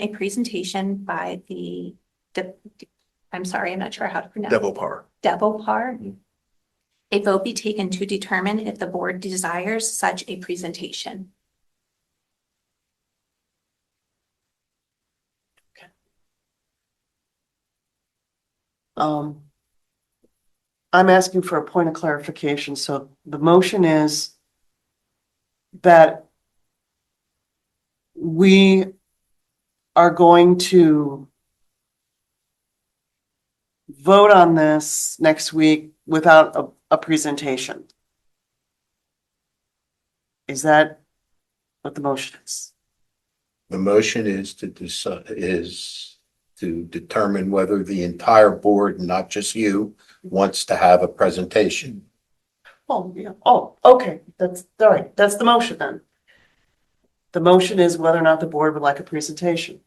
a presentation by the, De- I'm sorry, I'm not sure how to pronounce. it. Devil Par. Devil Par. Mhm. A vote be taken to determine if the board desires such a presentation. Um. I'm asking for a point of clarification, so the motion is. That. We. Are going to. Vote on this next week without a, a presentation. Is that what the motion is? The motion is to decide, is to determine whether the entire board, not just you, wants to have a presentation. Oh, yeah, oh, okay, that's, all right, that's the motion then. The motion is whether or not the board would like a presentation.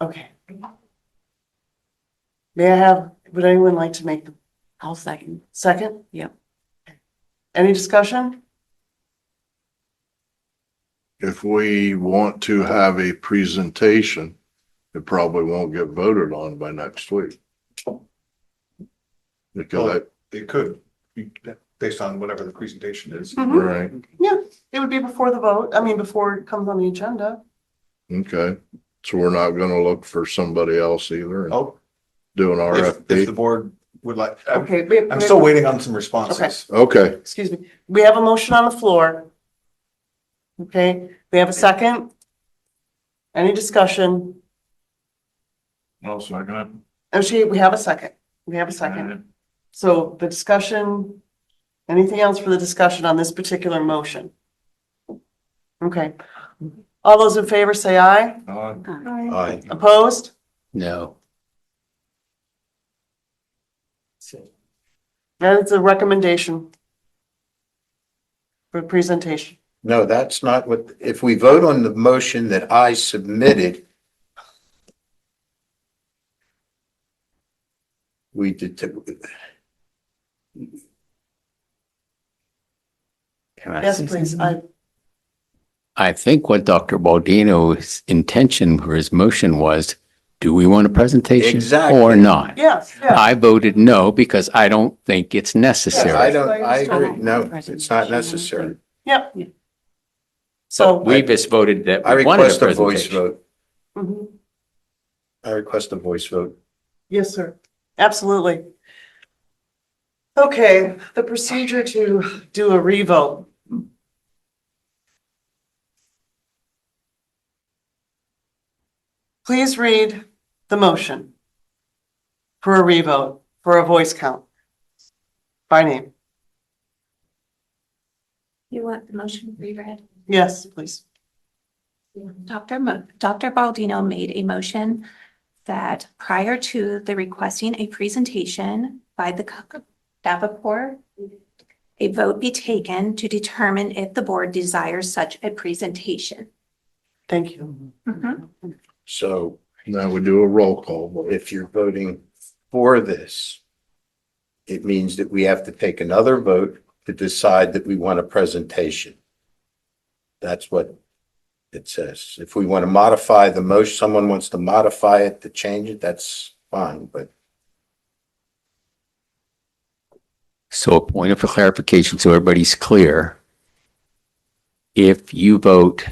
Okay. May I have, would anyone like to make the I'll second. second? Yep. Any discussion? if we want to have a presentation, it probably won't get voted on by next week. Because, It could, be based on whatever the presentation is. Hmm. I- right, It would be before the vote, I mean, before it comes on the agenda. okay, so we're not gonna look for somebody else either and Oh, do an if, if the RFP. board would like, I'm, Okay. we- I'm still waiting on some responses. Okay, Excuse me, we have a motion on the floor. Okay, we have a second? Any discussion? Well, so I'm gonna. Actually, we have a second. We have a second. So the discussion, anything else for the discussion on this particular motion? Okay. All those in favor say aye. uh, Aye. Opposed? No. That is a recommendation for presentation. No, that's not what, if we vote on the motion that I submitted, we did, Can I Yes, say please. something? I, I think what Dr. Baldino's intention for his motion was, do we want a presentation Exactly. or not? yes, yeah. I voted no because I don't think it's I necessary. don't, I agree, no, it's not necessary. Yep. Yeah. So. We just voted that I we wanted a request a voice presentation. vote. Mhm. I request a voice vote. Yes, sir. Absolutely. Okay, the procedure to do a revote. Please read the motion for a revote, for a voice count. By name. You want the motion reread? Yes, please. Dr. Mo- Dr. Baldino made a motion that prior to the requesting a presentation by the co- Davenport, a vote be taken to determine if the board desires such a presentation. Thank you. So now we do a roll call. vote. if you're voting for this, it means that we have to take another vote to decide that we want a presentation. That's what it says. If we want to modify the motion, someone wants to modify it to change it, that's fine, but So a point of clarification, so everybody's clear. If you vote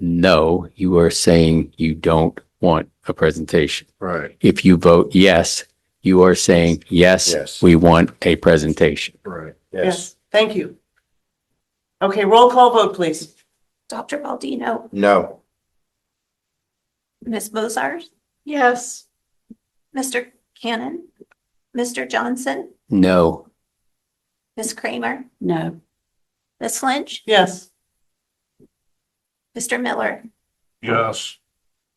no, you are saying you don't want a presentation. Right, If you vote yes, you are saying, Yes. yes, we want a presentation. right. yes, Yes, thank you. Okay, roll call vote, please. Dr. Baldino, no, Ms. Mozart, Yes. Mr. Cannon, Mr. Johnson, No, Ms. Kramer, No. Ms. Lynch, Yes, Mr. Miller, Yes,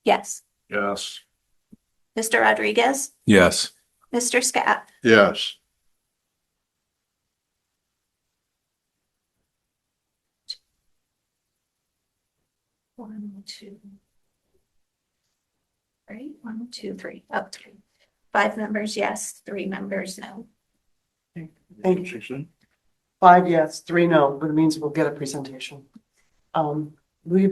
yes. yes. Mr. Rodriguez, Yes. Mr. Scat, Yes, One, two. Three, one, two, three, up three. Five members, yes, three members, no. thank you. Five yes, three no, but it means we'll get a presentation. Um, will you